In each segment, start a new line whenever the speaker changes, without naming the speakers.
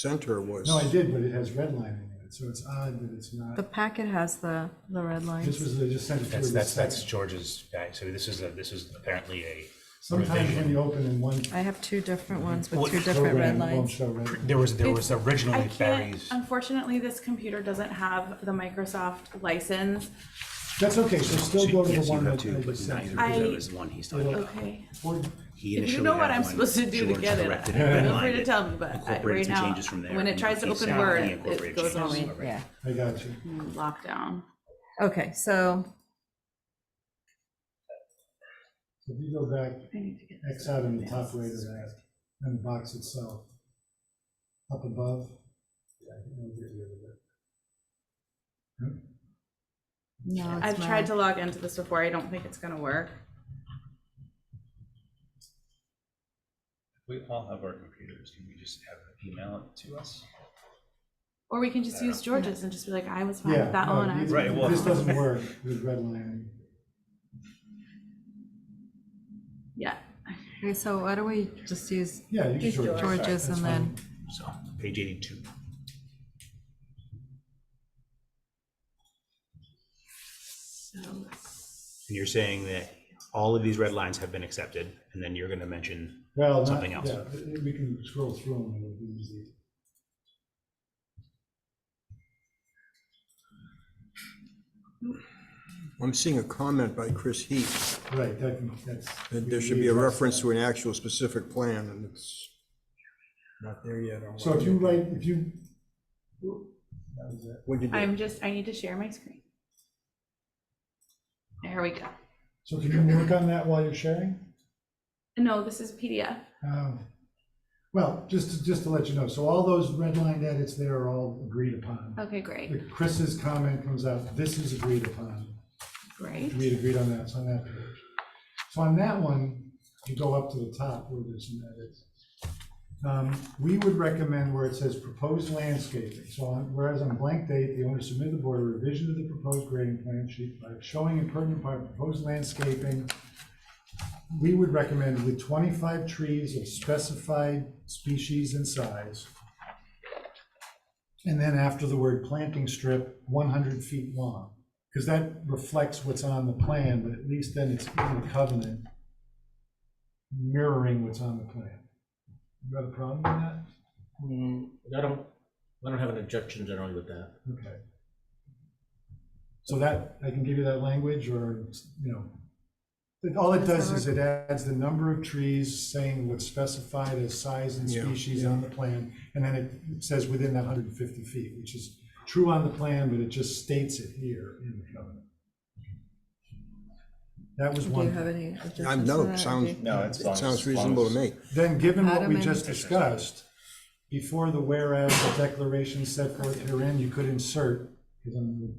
center was.
No, I did, but it has red lining in it, so it's odd that it's
The
not.
packet has the, the red
This
lines.
was, they just sent it through.
That's,
the
that's, that's
second.
George's guy, so this is, a this is apparently a
Sometimes when you open in one.
I have two different ones with
What-
two different
program,
red
it won't
lines.
show red.
There was, there was
I
originally
can't, um,
Barry's,
unfortunately, this computer doesn't have the Microsoft license.
That's okay, so still go to the
Yes, you
one
have
that
to,
I
but
just
neither,
sent.
because that
I-
was the one he's talking about.
Okay.
Or-
He
If you
initially
know what
had
I'm
one,
supposed to do to
George
get it,
corrected
feel free
redlined
to
it,
tell me, but I-
incorporated
right
some
now,
changes from there,
when it
and
tries to
he
open
said
Word,
he
it- it
incorporated
goes
changes.
on Mm,
Yeah,
I got you.
lockdown.
okay, so,
If you go back,
I need to get
X out in the top right of that, and the box itself. Up above. Yeah, I think I'll get rid of it.
no, it's
I've tried
not.
to log into this before. I don't think it's gonna work.
We all have our computers, can we just have it email it to us?
Or we can just use George's and just be like, I was fine
Yeah,
with that
no,
one. I
these-
was
Right, well-
This doesn't work with red lining.
Yeah.
Okay, so why don't we just use
Yeah, you can.
George's
sort it. That's
and then,
so, page eighty-two.
So
And you're saying that all of these red lines have been accepted, and then you're gonna mention,
Well, not-
something else.
yeah, it- We can scroll through them, it'll be easy.
I'm seeing a comment by Chris Heath,
Right, that can, that's.
that there should be a reference to an actual specific plan, and it's not there yet. I'll-
So if you write, if you. That was it.
What'd you do?
I'm just, I need to share my screen. There we go.
So can you work on that while you're sharing?
No, this is PDF.
Um, Well, just, to- just to let you know, so all those red line edits there are all agreed upon.
Okay, great,
Like Chris's comment comes out, this is agreed upon.
great.
We had agreed on that, it's on that page. So on that one, you go up to the top where there's some edits. Um, We would recommend where it says proposed landscaping, so on- whereas on blank date, the owner submitted the board a revision to the proposed grading plan sheet by showing in pertinent part proposed landscaping. We would recommend with twenty-five trees of specified species and size. And then after the word planting strip, one hundred feet long. Because that reflects what's on the plan, but at least then it's in the covenant mirroring what's on the plan. You got a problem with that?
Mm, I don't, I don't have an objection generally with that.
Okay. So that, I can give you that language or, you know, but all it does is it adds the number of trees saying what's specified as size and
Yeah.
species on the plan. And then it says within that hundred and fifty feet, which is true on the plan, but it just states it here in the covenant. That was
do you
one.
have any? objections
I'm,
to
no,
that?
it sounds,
No, it's
it
long-
sounds
long as-
reasonable to me.
Then, given what we
Adam
just
and-
discussed, before the whereas the declaration set forth herein, you could insert, because I'm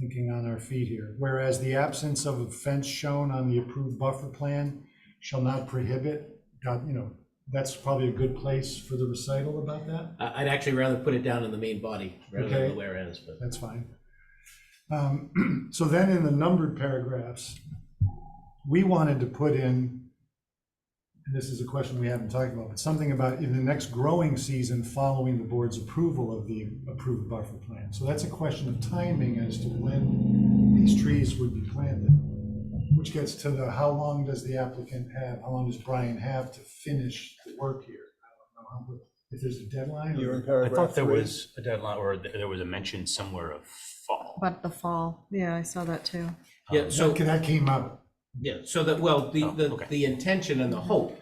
thinking on our feet here, whereas the absence of a fence shown on the approved buffer plan shall not prohibit, God, you know, that's probably a good place for the recital about that.
I, I'd actually rather put it down in the main body rather than
Okay.
the whereas, but.
that's fine. Um, So then in the numbered paragraphs, we wanted to put in, and this is a question we haven't talked about, but something about in the next growing season following the board's approval of the approved buffer plan. So that's a question of timing as to when these trees would be planted, which gets to the, how long does the applicant have, how long does Brian have to finish the work here? I don't know how- If there's a deadline? or-
You're in
I
paragraph
thought there
three.
was a deadline, or th- there was a mention somewhere of fall.
But the fall, yeah, I saw that too.
Yeah, um, so,
That came out.
yeah, so that, well, the,
Oh,
the,
okay.
the intention and the hope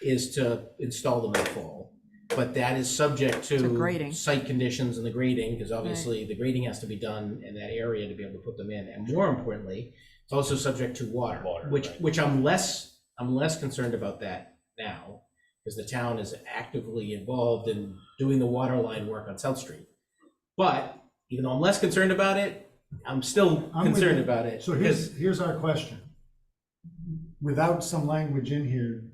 is to install them in the fall. But that is subject to.
To grading.
Site conditions and the grading, because obviously the grading has to be done in that area to be able to put them in. And more importantly, it's also subject to water.
Water,
Which,
right.
which I'm less, I'm less concerned about that now, because the town is actively involved in doing the water line work on South Street. But even though I'm less concerned about it, I'm still
I'm with
concerned
you.
about it.
So here's, here's our question. Without some language in here,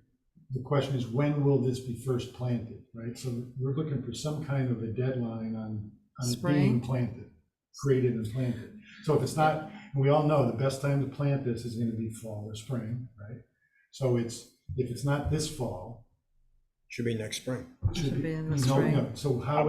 the question is, when will this be first planted, right? So we're looking for some kind of a deadline on, on it being
Spring.
planted, created and planted. So if it's not, and we all know the best time to plant this is gonna be fall or spring, right? So it's, if it's not this fall,
Should be next spring.
Should be in the
No,
spring.
no. So how